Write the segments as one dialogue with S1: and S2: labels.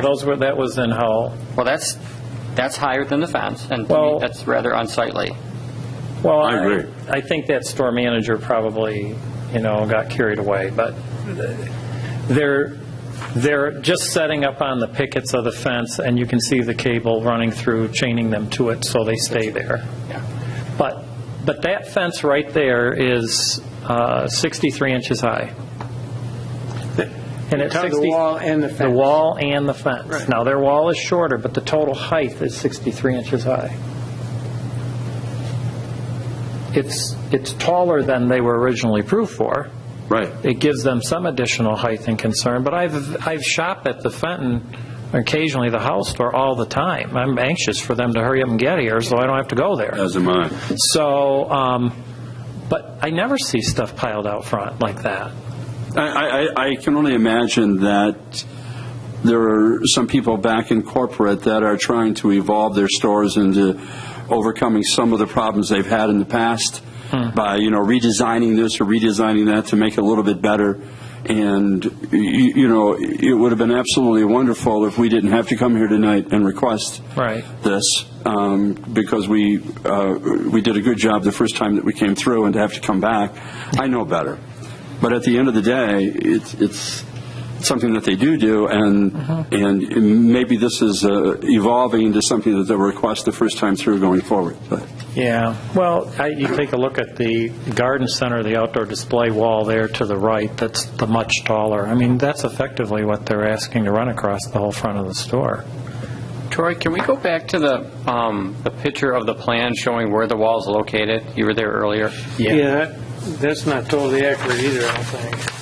S1: Those were, that was in Hull.
S2: Well, that's, that's higher than the fence, and to me,
S1: Well-
S2: that's rather unsightly.
S1: Well,
S3: I agree.
S1: I think that store manager probably, you know, got carried away, but they're, they're just setting up on the pickets of the fence, and you can see the cable running through, chaining them to it so they stay there. But, but that fence right there is uh, 63 inches high. And it's
S4: Between the
S1: 60...
S4: wall and the
S1: The
S4: fence.
S1: wall and the fence.
S4: Right.
S1: Now, their wall is shorter, but the total height is 63 inches high. It's, it's taller than they were originally approved for.
S3: Right.
S1: It gives them some additional height and concern, but I've, I've shopped at the Fenton, occasionally the house store, all the time. I'm anxious for them to hurry up and get here, so I don't have to go there.
S3: As am I.
S1: So, um, but I never see stuff piled out front like that.
S3: I- I, I, I can only imagine that there are some people back in corporate that are trying to evolve their stores into overcoming some of the problems they've had in the past by, you know, redesigning this or redesigning that to make it a little bit better. And, you, you know, it would have been absolutely wonderful if we didn't have to come here tonight and request
S1: Right.
S3: this um, because we uh, we did a good job the first time that we came through, and to have to come back, I know better. But at the end of the day, it's it's something that they do do, and and maybe this is uh, evolving into something that they request the first time through going forward. But
S1: Yeah, well, I- you take a look at the garden center, the outdoor display wall there to the right, that's the much taller. I mean, that's effectively what they're asking to run across the whole front of the store.
S2: Troy, can we go back to the, um, the picture of the plan showing where the wall's located? You were there earlier.
S4: Yeah, that- that's not totally accurate either, I don't think.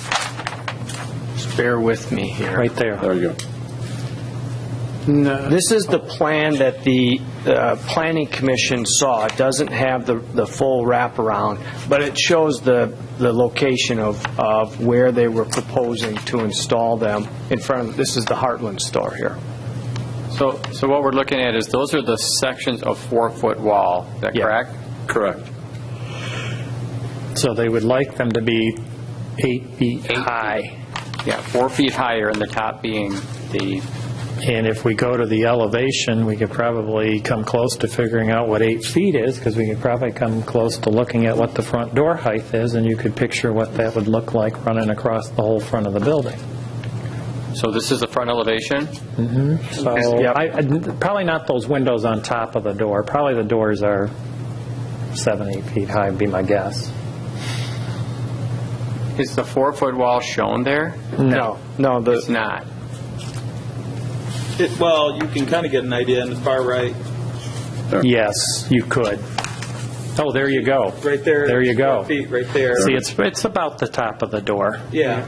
S5: Just bear with me here.
S1: Right there.
S3: there you go.
S4: No,
S5: This is the plan that the uh, Planning Commission saw. It doesn't have the, the full wraparound, but it shows the, the location of, of where they were proposing to install them in front of, this is the Heartland store here.
S2: So, so what we're looking at is, those are the sections of four-foot wall, is that
S5: Yeah.
S2: correct?
S3: Correct.
S1: So they would like them to be eight feet high.
S2: Yeah, four feet higher, and the top being the,
S1: And if we go to the elevation, we could probably come close to figuring out what eight feet is, because we could probably come close to looking at what the front door height is, and you could picture what that would look like running across the whole front of the building.
S2: so this is the front elevation?
S1: So,
S5: Yep.
S1: I- I- probably not those windows on top of the door. Probably the doors are seven, eight feet high, would be my guess.
S2: Is the four-foot wall shown there?
S5: No. No,
S2: It's
S5: the,
S2: not.
S6: It, well, you can kind of get an idea in the far right,
S1: Yes, you could. Oh, there you go.
S6: right there.
S1: There you go.
S6: Four Feet, right there.
S1: See, it's, it's about the top of the door.
S6: Yeah.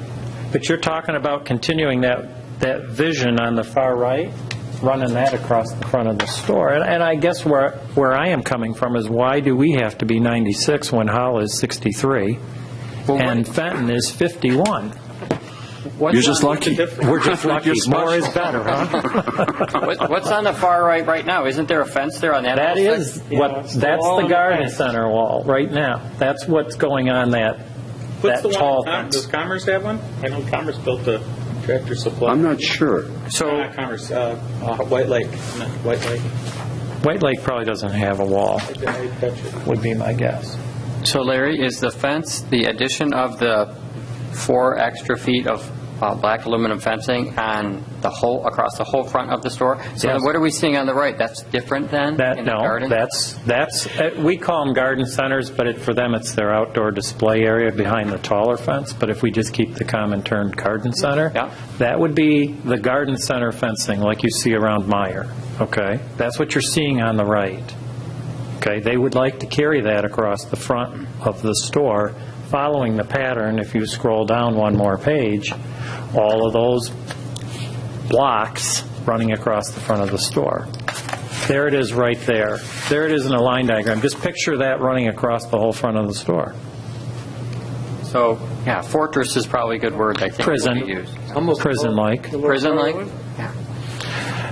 S1: But you're talking about continuing that, that vision on the far right, running that across the front of the store. And and I guess where, where I am coming from is why do we have to be 96 when Howell is 63? And Fenton is 51?
S3: You're just lucky.
S1: We're just lucky.
S3: You're special.
S1: More is better, huh?
S2: What- What's on the far right right now? Isn't there a fence there on that?
S1: That
S2: little
S1: is
S2: sec-
S1: what, that's the
S4: and the
S1: garden center wall right now. That's what's going on that,
S6: What's
S1: that
S6: the
S1: tall
S6: one? Com- Does
S1: fence.
S6: Commerce have one? I know Commerce built a tractor supply.
S3: I'm not sure.
S6: No, not Commerce. Uh, White Lake. No, White Lake.
S1: White Lake probably doesn't have a wall,
S6: I did- I touched it.
S1: would be my guess.
S2: So Larry, is the fence, the addition of the four extra feet of uh, black aluminum fencing on the whole, across the whole front of the store? So then
S1: Yes.
S2: what are we seeing on the right? That's different than?
S1: That,
S2: in the
S1: no,
S2: garden?
S1: that's, that's, uh, we call them garden centers, but it- for them, it's their outdoor display area behind the taller fence. But if we just keep the common term garden center,
S2: Yeah.
S1: that would be the garden center fencing like you see around Meyer, okay? That's what you're seeing on the right, okay? They would like to carry that across the front of the store, following the pattern, if you scroll down one more page, all of those blocks running across the front of the store. There it is right there. There it is in a line diagram. Just picture that running across the whole front of the store.
S2: So, yeah, fortress is probably a good word, I think. that we
S1: Prison,
S2: use.
S1: prison-like.
S2: Prison-like?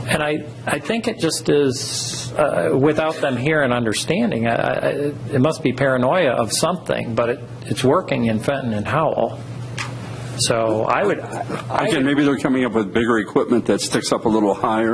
S1: And I, I think it just is, uh, without them here and understanding, I- I- it must be paranoia of something, but it, it's working in Fenton and Howell. So I would, I would
S3: Again, maybe they're coming up with bigger equipment that sticks up a little higher.